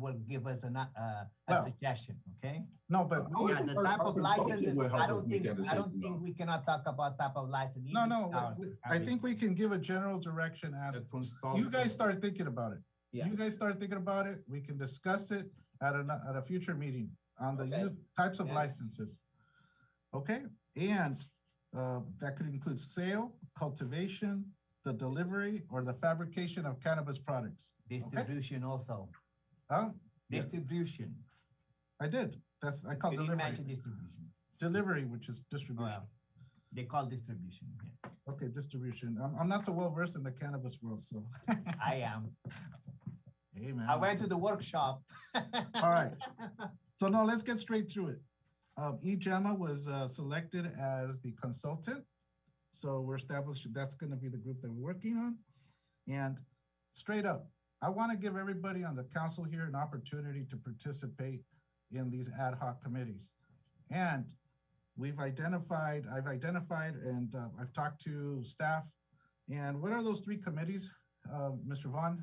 will give us an, uh, a Well- suggestion, okay? No, but we. Oh, Yeah, the our- type our of consultant licenses, will help I us don't make think, that I don't decision, think though. we cannot talk about type of license. No, even no, without- we- we- I I mean- think we can give a general direction as, The consultant. you guys start thinking about it. Yeah. You guys start thinking about it, we can discuss it at a, at a future meeting on the Okay. youth types of Yeah. licenses. Okay, and, uh, that could include sale, cultivation, the delivery, or the fabrication of cannabis products. Distribution also, Oh, Yeah. distribution. I did, that's, I call Can you imagine delivery, distribution? delivery, which is distribution. Well, They call distribution, yeah. Okay, distribution, I'm, I'm not so well versed in the cannabis world, so. I am. Hey, man. I went to the workshop. All right. So now let's get straight to it. Um, EJAMA was uh, selected as the consultant. So we're established that's going to be the group that we're working on. And straight up, I want to give everybody on the council here an opportunity to participate in these ad hoc committees. And we've identified, I've identified, and uh, I've talked to staff. And what are those three committees, uh, Mr. Vaughn,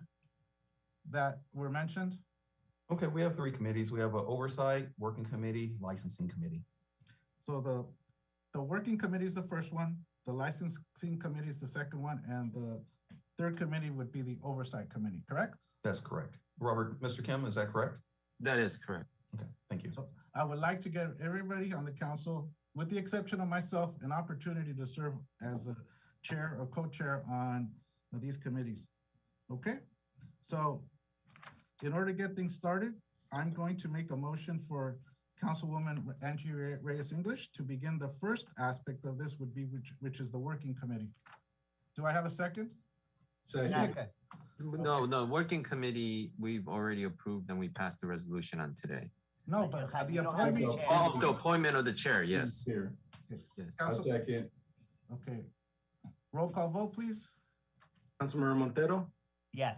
that were mentioned? Okay, we have three committees. We have an oversight, working committee, licensing committee. So the, the working committee is the first one, the licensing committee is the second one, and the third committee would be the oversight committee, correct? That's correct. Robert, Mr. Kim, is that correct? That is correct. Okay, thank you. So- I would like to get everybody on the council, with the exception of myself, an opportunity to serve as a chair or co-chair on these committees. Okay? So in order to get things started, I'm going to make a motion for Councilwoman Angie Re- Reyes English to begin the first aspect of this would be, which, which is the working committee. Do I have a second? Second. No, no, working committee, we've already approved and we passed the resolution on today. No, but the You don't have to appointment. change. Oh, the appointment of the chair, Mm-hmm. yes, Here, yes. I Council- second. Okay. Roll call vote, please. Councilmember Montero, Yes,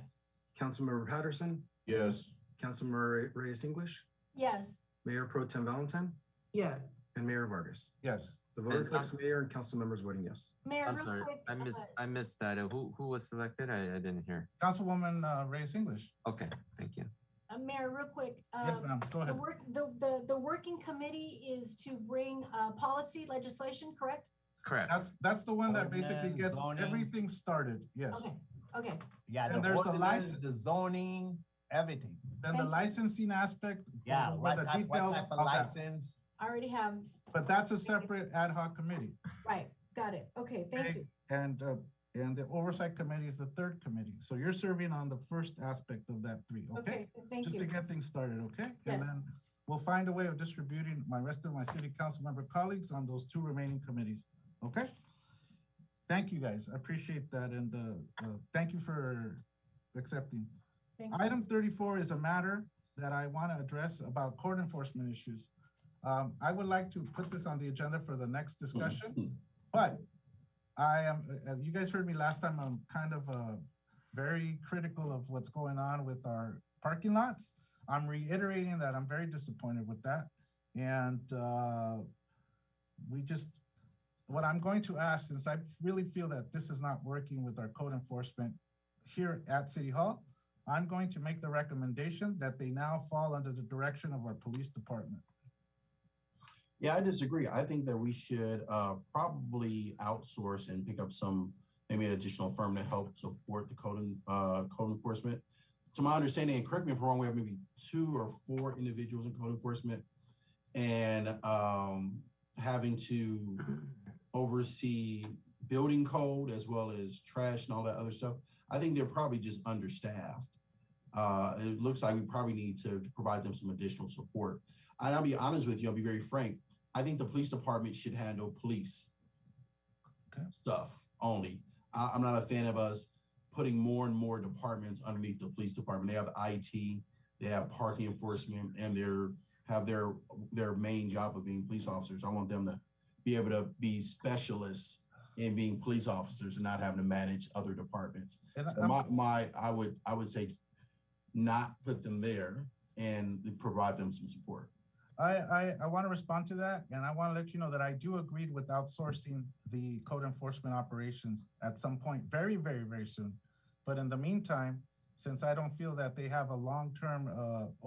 Councilmember Patterson, Yes, Councilmember Re- Reyes English, Yes. Mayor Pro Tem Valentine, Yes. and Mayor Vargas. Yes. The vote And- reflects mayor and council members voting yes. Mayor, I'm real sorry, quick, I uh, missed, I missed that. Uh, Who, who was selected? I, I didn't hear. Councilwoman uh, Reyes English. Okay, thank you. uh, Mayor, real quick. Yes, um, ma'am. Go The ahead. work, the, the, the working committee is to bring, uh, policy legislation, correct? Correct. That's, that's the one that basically Ordinance, gets zoning. everything started, yes. Okay, okay, yeah, the And there's the ordinance, license. the zoning, everything. Then the And- licensing aspect. Yeah, goes over what the type, what details type of of that. license? I already have, But that's a separate ad hoc committee. right, got it. Okay, Okay. thank you. And, uh, and the oversight committee is the third committee. So you're serving on the first aspect of that three, okay? Okay, thank Just to you. get things started, okay? Yes. And then we'll find a way of distributing my rest of my city council member colleagues on those two remaining committees, okay? Thank you, guys. I appreciate that and, uh, uh, thank you for accepting. Thank you. Item thirty-four is a matter that I want to address about court enforcement issues. Um, I would like to put this on the agenda for the next discussion, but I am, as you guys heard me last time, I'm kind of, uh, very critical of what's going on with our parking lots. I'm reiterating that I'm very disappointed with that. And, uh, we just, what I'm going to ask, since I really feel that this is not working with our code enforcement here at City Hall, I'm going to make the recommendation that they now fall under the direction of our police department. yeah, I disagree. I think that we should uh, probably outsource and pick up some, maybe an additional firm to help support the code, en- uh, code enforcement. To my understanding, and correct me if I'm wrong, we have maybe two or four individuals in code enforcement and um, having to oversee building code as well as trash and all that other stuff. I think they're probably just understaffed. Uh, it looks like we probably need to provide them some additional support. And I'll be honest with you, I'll be very frank. I think the police department should handle police Okay. stuff only. I, I'm not a fan of us putting more and more departments underneath the police department. They have IT, they have parking enforcement, and they're have their their main job of being police officers. I want them to be able to be specialists in being police officers and not having to manage other departments. And So I'm- my, my, I would, I would say not put them there and provide them some support. I, I, I want to respond to that, and I want to let you know that I do agree with outsourcing the code enforcement operations at some point, very, very, very soon. But in the meantime, since I don't feel that they have a long-term, uh,